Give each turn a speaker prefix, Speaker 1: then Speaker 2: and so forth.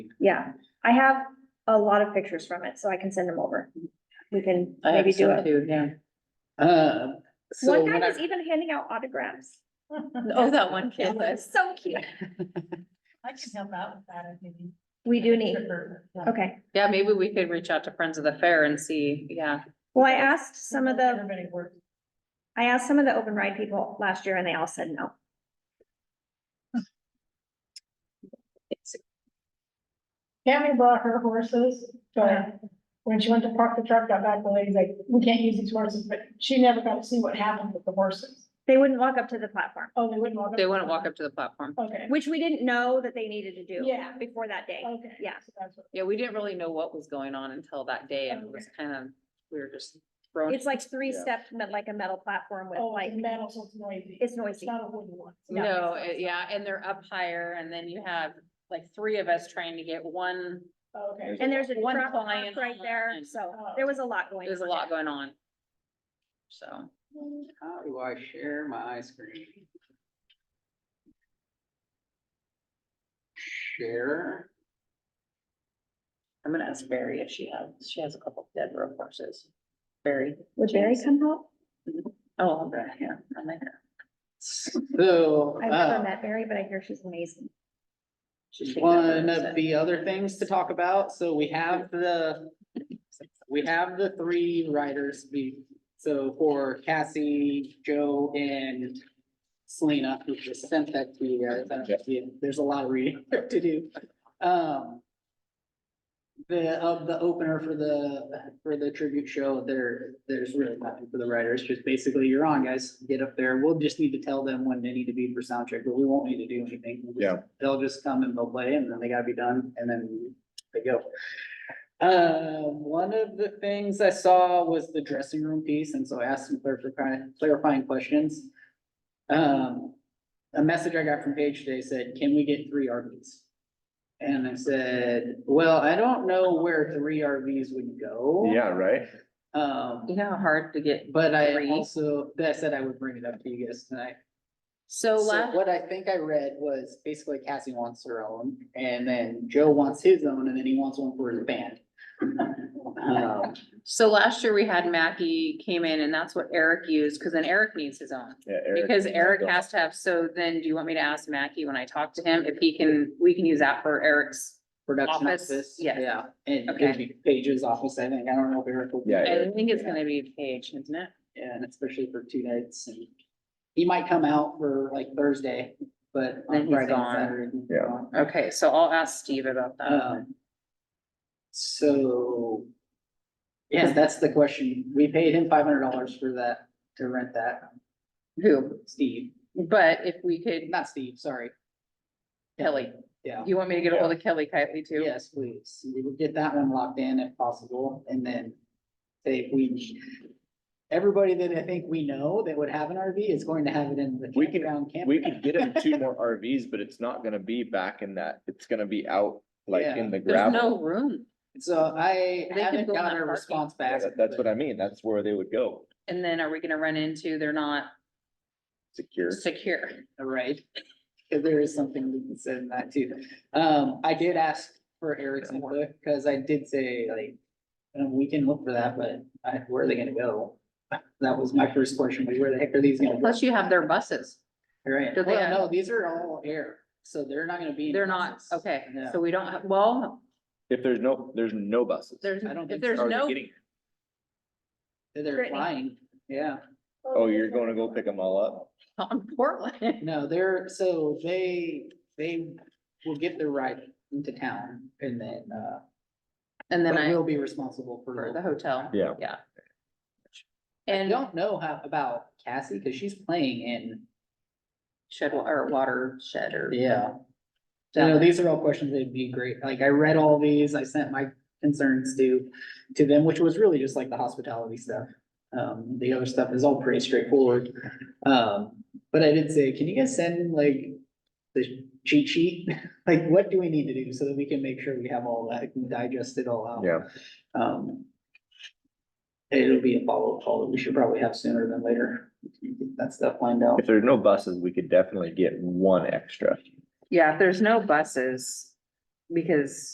Speaker 1: Yeah, I have a lot of pictures from it, so I can send them over. We can
Speaker 2: I have
Speaker 1: maybe do
Speaker 2: some
Speaker 1: it.
Speaker 2: too, yeah. Uh, so
Speaker 1: One guy
Speaker 2: when I,
Speaker 1: was even handing out autographs.
Speaker 2: oh, that one kid,
Speaker 1: It was
Speaker 2: that's,
Speaker 1: so cute.
Speaker 3: I can help out with that, I think.
Speaker 1: We do need, okay.
Speaker 2: yeah, maybe we could reach out to Friends of the Fair and see, yeah.
Speaker 1: Well, I asked some of the,
Speaker 3: Everybody works.
Speaker 1: I asked some of the open ride people last year and they all said no.
Speaker 4: Tammy brought her horses, but when she went to park the truck, got back, the lady's like, we can't use these horses, but she never got to see what happened with the horses.
Speaker 1: They wouldn't walk up to the platform,
Speaker 4: Oh, they wouldn't walk up.
Speaker 2: They wouldn't walk up to the platform.
Speaker 4: Okay,
Speaker 1: which we didn't know that they needed to do
Speaker 4: yeah,
Speaker 1: before that day.
Speaker 2: Oh.
Speaker 4: okay.
Speaker 1: Yeah.
Speaker 4: So that's what-
Speaker 2: Yeah, we didn't really know what was going on until that day and it was kind of, we were just thrown.
Speaker 1: Oh, It's like three steps, like a metal platform with
Speaker 4: Oh,
Speaker 1: like,
Speaker 4: like metal, so it's noisy.
Speaker 1: it's
Speaker 4: It's
Speaker 1: noisy.
Speaker 4: not a wooden one.
Speaker 1: No,
Speaker 2: No, it- eh, yeah, and they're up higher and then you have like three of us trying to get one,
Speaker 4: Okay. Oh,
Speaker 1: And there's a
Speaker 2: One
Speaker 1: truck
Speaker 2: client
Speaker 1: right there,
Speaker 2: online. Oh.
Speaker 1: so there was a lot going on.
Speaker 2: there's a lot going on. So.
Speaker 5: How do I share my screen? Share,
Speaker 2: I'm gonna ask Barry if she has, she has a couple of dead road horses. Barry.
Speaker 1: Would Barry come help?
Speaker 2: Oh, okay, yeah, I like her.
Speaker 5: so,
Speaker 1: I've never
Speaker 5: uh,
Speaker 1: met Barry, but I hear she's amazing.
Speaker 5: just one of the other things to talk about, so we have the, we have the three riders, we, so for Cassie, Joe, and Selena, who just sent that to you guys, I don't see it. there's a lot of reading to do. Um, the, of the opener for the, for the tribute show, there, there's really nothing for the writers, just basically, you're on, guys, get up there, we'll just need to tell them when they need to be for sound check, but we won't need to do anything. We'll just-
Speaker 6: Yeah.
Speaker 5: They'll just come and they'll play, and then they gotta be done, and then they go. Uh, one of the things I saw was the dressing room piece, and so I asked some clarifying, clarifying questions. Um, a message I got from Paige today said, can we get three RVs? And I said, well, I don't know where three RVs would go.
Speaker 6: Yeah, right?
Speaker 5: Um,
Speaker 2: You know how hard to get,
Speaker 5: but I
Speaker 2: Three.
Speaker 5: also, I said I would bring it up to you guys tonight.
Speaker 2: so
Speaker 5: So
Speaker 2: last,
Speaker 5: what I think I read was basically Cassie wants her own, and then Joe wants his own, and then he wants one for his band. Um,
Speaker 2: so last year we had Mackie came in and that's what Eric used, cause then Eric needs his own.
Speaker 6: Yeah, Eric.
Speaker 2: Because Eric has to have, so then do you want me to ask Mackie when I talk to him if he can, we can use that for Eric's?
Speaker 5: Production
Speaker 2: Office,
Speaker 5: office,
Speaker 2: yeah.
Speaker 5: yeah, and
Speaker 2: Okay.
Speaker 5: Paige- Paige's office, I think, I don't know if Eric will. be
Speaker 6: Yeah,
Speaker 5: there.
Speaker 2: I think it's gonna be Paige, isn't it?
Speaker 5: And especially for two nights, and he might come out for like Thursday, but
Speaker 2: Then
Speaker 5: on
Speaker 2: he's
Speaker 5: Friday and
Speaker 2: gone.
Speaker 5: Saturday. he's
Speaker 6: Yeah.
Speaker 5: gone.
Speaker 2: Okay, so I'll ask Steve about that.
Speaker 5: Um, so. Yeah, that's the question. We paid him five hundred dollars for that, to rent that,
Speaker 2: Who,
Speaker 5: Steve,
Speaker 2: but if we could,
Speaker 5: not Steve, sorry.
Speaker 2: Kelly,
Speaker 5: Yeah,
Speaker 2: you want me to get a hold of Kelly Kitely too?
Speaker 5: yes, please. We will get that one locked in if possible, and then. Say we, everybody that I think we know that would have an RV is going to have it in the
Speaker 6: We can-
Speaker 5: campground camp.
Speaker 6: We could get him two more RVs, but it's not gonna be back in that, it's gonna be out like
Speaker 5: Yeah.
Speaker 6: in the
Speaker 2: There's
Speaker 6: gravel.
Speaker 2: no room.
Speaker 5: So I
Speaker 2: could
Speaker 5: haven't
Speaker 2: go in that
Speaker 5: got a
Speaker 2: parking.
Speaker 5: response
Speaker 6: Yeah,
Speaker 5: back.
Speaker 6: that- That's what I mean, that's where they would go,
Speaker 2: And then are we gonna run into, they're not
Speaker 6: secure.
Speaker 2: secure?
Speaker 5: Right, if there is something we can say in that too. Um, I did ask for Eric's input, cause I did say like. Um, we can look for that, but I, where are they gonna go? That was my first question, like, where the heck are these gonna go?
Speaker 2: Plus you have their buses.
Speaker 5: Right,
Speaker 2: do they
Speaker 5: well,
Speaker 2: have-
Speaker 5: no, these are all air, so they're not gonna be. in
Speaker 2: They're not,
Speaker 5: buses.
Speaker 2: okay,
Speaker 5: No.
Speaker 2: so we don't, have well,
Speaker 6: If there's no, there's no buses.
Speaker 2: there's,
Speaker 5: I don't
Speaker 2: if
Speaker 5: think
Speaker 2: there's
Speaker 6: How are they
Speaker 2: no,
Speaker 6: getting-
Speaker 5: They're
Speaker 1: Brittany.
Speaker 5: flying, yeah.
Speaker 6: Oh, you're gonna go pick them all up?
Speaker 2: on Portland.
Speaker 5: No, they're, so they, they will get their ride into town and then, uh,
Speaker 2: And then
Speaker 5: but
Speaker 2: I,
Speaker 5: will be responsible for.
Speaker 2: for the hotel.
Speaker 6: Yeah.
Speaker 2: Yeah.
Speaker 5: I
Speaker 2: And
Speaker 5: don't know how about Cassie, cause she's playing in,
Speaker 2: shed, wa- or water shed or.
Speaker 5: yeah. So no, these are all questions that'd be great, like I read all these, I sent my concerns to, to them, which was really just like the hospitality stuff. Um, the other stuff is all pretty straightforward, um, but I did say, can you guys send like the cheat sheet? Like, what do we need to do so that we can make sure we have all that, can digest it all out?
Speaker 6: Yeah.
Speaker 5: Um. It'll be a follow-up call that we should probably have sooner than later, get that stuff lined out.
Speaker 6: If there's no buses, we could definitely get one extra.
Speaker 2: Yeah, if there's no buses, because